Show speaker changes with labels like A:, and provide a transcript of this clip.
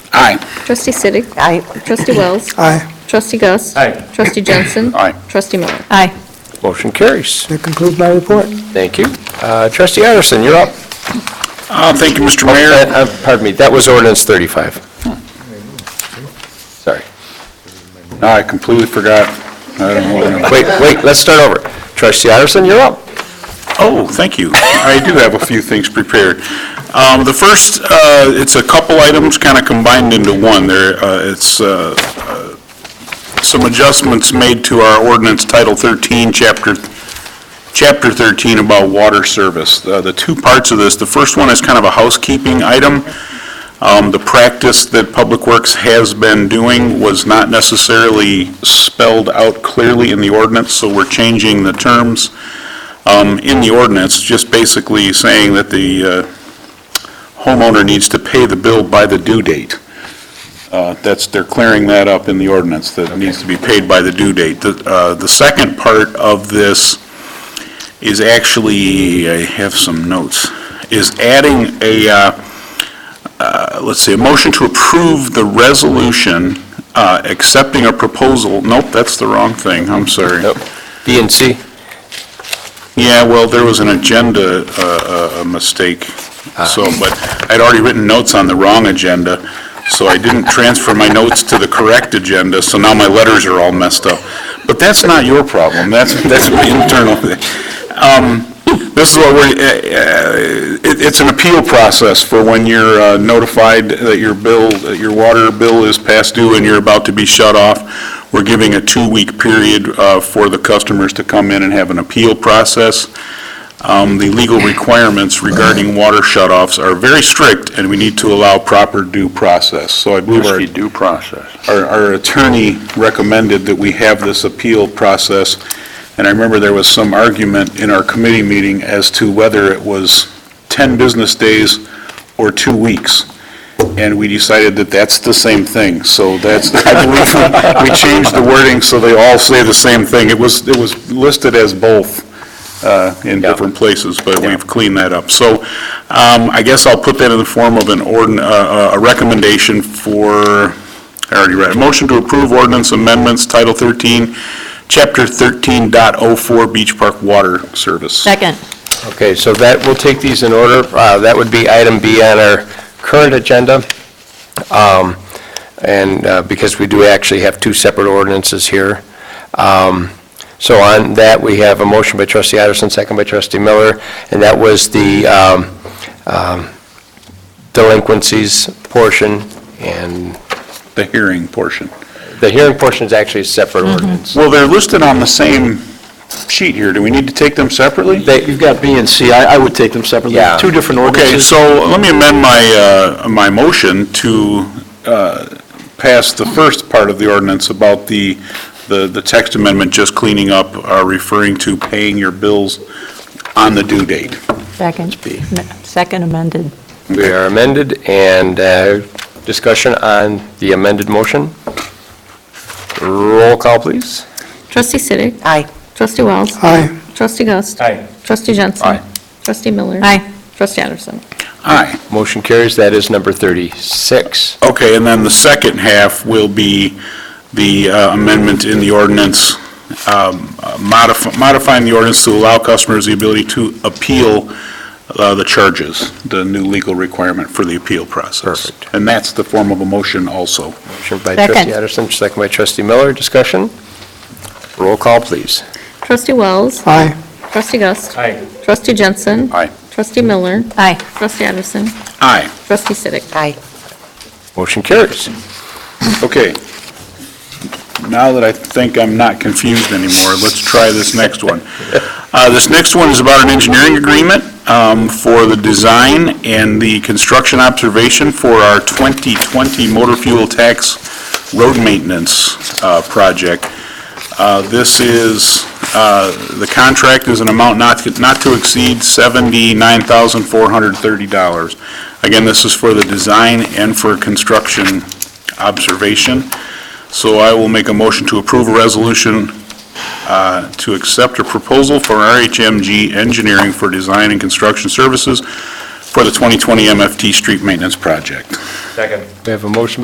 A: Aye.
B: Trustee Siddick.
C: Aye.
B: Trustee Wells.
C: Aye.
B: Trustee Gus.
D: Aye.
B: Trustee Jensen.
A: Aye.
B: Trustee Miller.
C: Aye.
E: Motion carries.
C: That concludes my report.
E: Thank you. Uh, Trustee Addison, you're up.
A: Uh, Thank you, Mr.
E: That-
A: Mayor.
E: uh, Pardon me, that was ordinance 35. Sorry.
A: No, I completely forgot. I don't know.
E: Wait, wait, let's start over. Trustee Addison, you're up.
A: Oh, thank you. I do have a few things prepared. Um, The first, uh, it's a couple items kind of combined into one. There, uh, it's uh, uh, some adjustments made to our ordinance Title 13, Chapter Chapter 13 about water service. Uh, The two parts of this, the first one is kind of a housekeeping item. Um, The practice that Public Works has been doing was not necessarily spelled out clearly in the ordinance, so we're changing the terms um, in the ordinance, just basically saying that the uh, homeowner needs to pay the bill by the due date. Uh, That's, they're clearing that up in the ordinance, that it needs to be paid by the due date. The uh, the second part of this is actually, I have some notes, is adding a, uh, uh, let's see, a motion to approve the resolution uh, accepting a proposal, nope, that's the wrong thing, I'm sorry.
E: Nope. B and C.
A: Yeah, well, there was an agenda uh, uh, mistake, so, but I'd already written notes on the wrong agenda, so I didn't transfer my notes to the correct agenda, so now my letters are all messed up. But that's not your problem, that's, that's my internal thing. Um, This is what we're, uh, uh, it- it's an appeal process for when you're uh, notified that your bill, that your water bill is past due and you're about to be shut off. We're giving a two-week period uh, for the customers to come in and have an appeal process. Um, The legal requirements regarding water shut-offs are very strict, and we need to allow proper due process. So I believe our... Due process. Our attorney recommended that we have this appeal process, and I remember there was some argument in our committee meeting as to whether it was 10 business days or two weeks, and we decided that that's the same thing. So that's, I believe we- we changed the wording so they all say the same thing. It was, it was listed as both uh, in different places, but we've cleaned that up. So um, I guess I'll put that in the form of an ordin, uh, uh, a recommendation for, I already read, it. motion to approve ordinance amendments, Title 13, Chapter 13.04, Beach Park Water Service.
C: Second.
E: Okay, so that, we'll take these in order. Uh, That would be item B on our current agenda. Um, And uh, because we do actually have two separate ordinances here. Um, So on that, we have a motion by trustee Addison, second by trustee Miller, and that was the um, um, delinquencies portion, and
A: The hearing portion.
E: the hearing portion is actually a separate ordinance.
A: Well, they're listed on the same sheet here. Do we need to take them separately?
E: They-
F: You've got B and C, I, I would take them separately.
E: Yeah.
F: Two different
A: Okay,
F: ordinances.
A: so let me amend my, uh, my motion to uh, pass the first part of the ordinance about the, the the text amendment, just cleaning up, uh, referring to paying your bills on the due date.
C: Second. Second amended.
E: We are amended, and uh, discussion on the amended motion. Roll call, please.
B: Trustee Siddick.
C: Aye.
B: Trustee Wells.
C: Aye.
B: Trustee Gus.
D: Aye.
B: Trustee Jensen.
E: Aye.
B: Trustee Miller.
C: Aye.
B: Trustee Addison.
A: Aye.
E: Motion carries, that is number 36.
A: Okay, and then the second half will be the uh, amendment in the ordinance, um, uh, modif- modifying the ordinance to allow customers the ability to appeal uh, the charges, the new legal requirement for the appeal process.
E: Perfect.
A: And that's the form of a motion also.
E: Motion by
C: Second.
E: trustee Addison, second by trustee Miller, discussion. Roll call, please.
B: Trustee Wells.
C: Aye.
B: Trustee Gus.
D: Aye.
B: Trustee Jensen.
A: Aye.
B: Trustee Miller.
C: Aye.
B: Trustee Addison.
A: Aye.
B: Trustee Siddick.
C: Aye.
E: Motion carries.
A: Okay. Now that I think I'm not confused anymore, let's try this next one. Uh, This next one is about an engineering agreement um, for the design and the construction observation for our 2020 motor fuel tax road maintenance uh, project. Uh, This is, uh, the contract is an amount not not to exceed $79,430. Again, this is for the design and for construction observation. So I will make a motion to approve a resolution uh, to accept a proposal for RHMG Engineering for Design and Construction Services for the 2020 MFT Street Maintenance Project.
D: Second.
E: We have a motion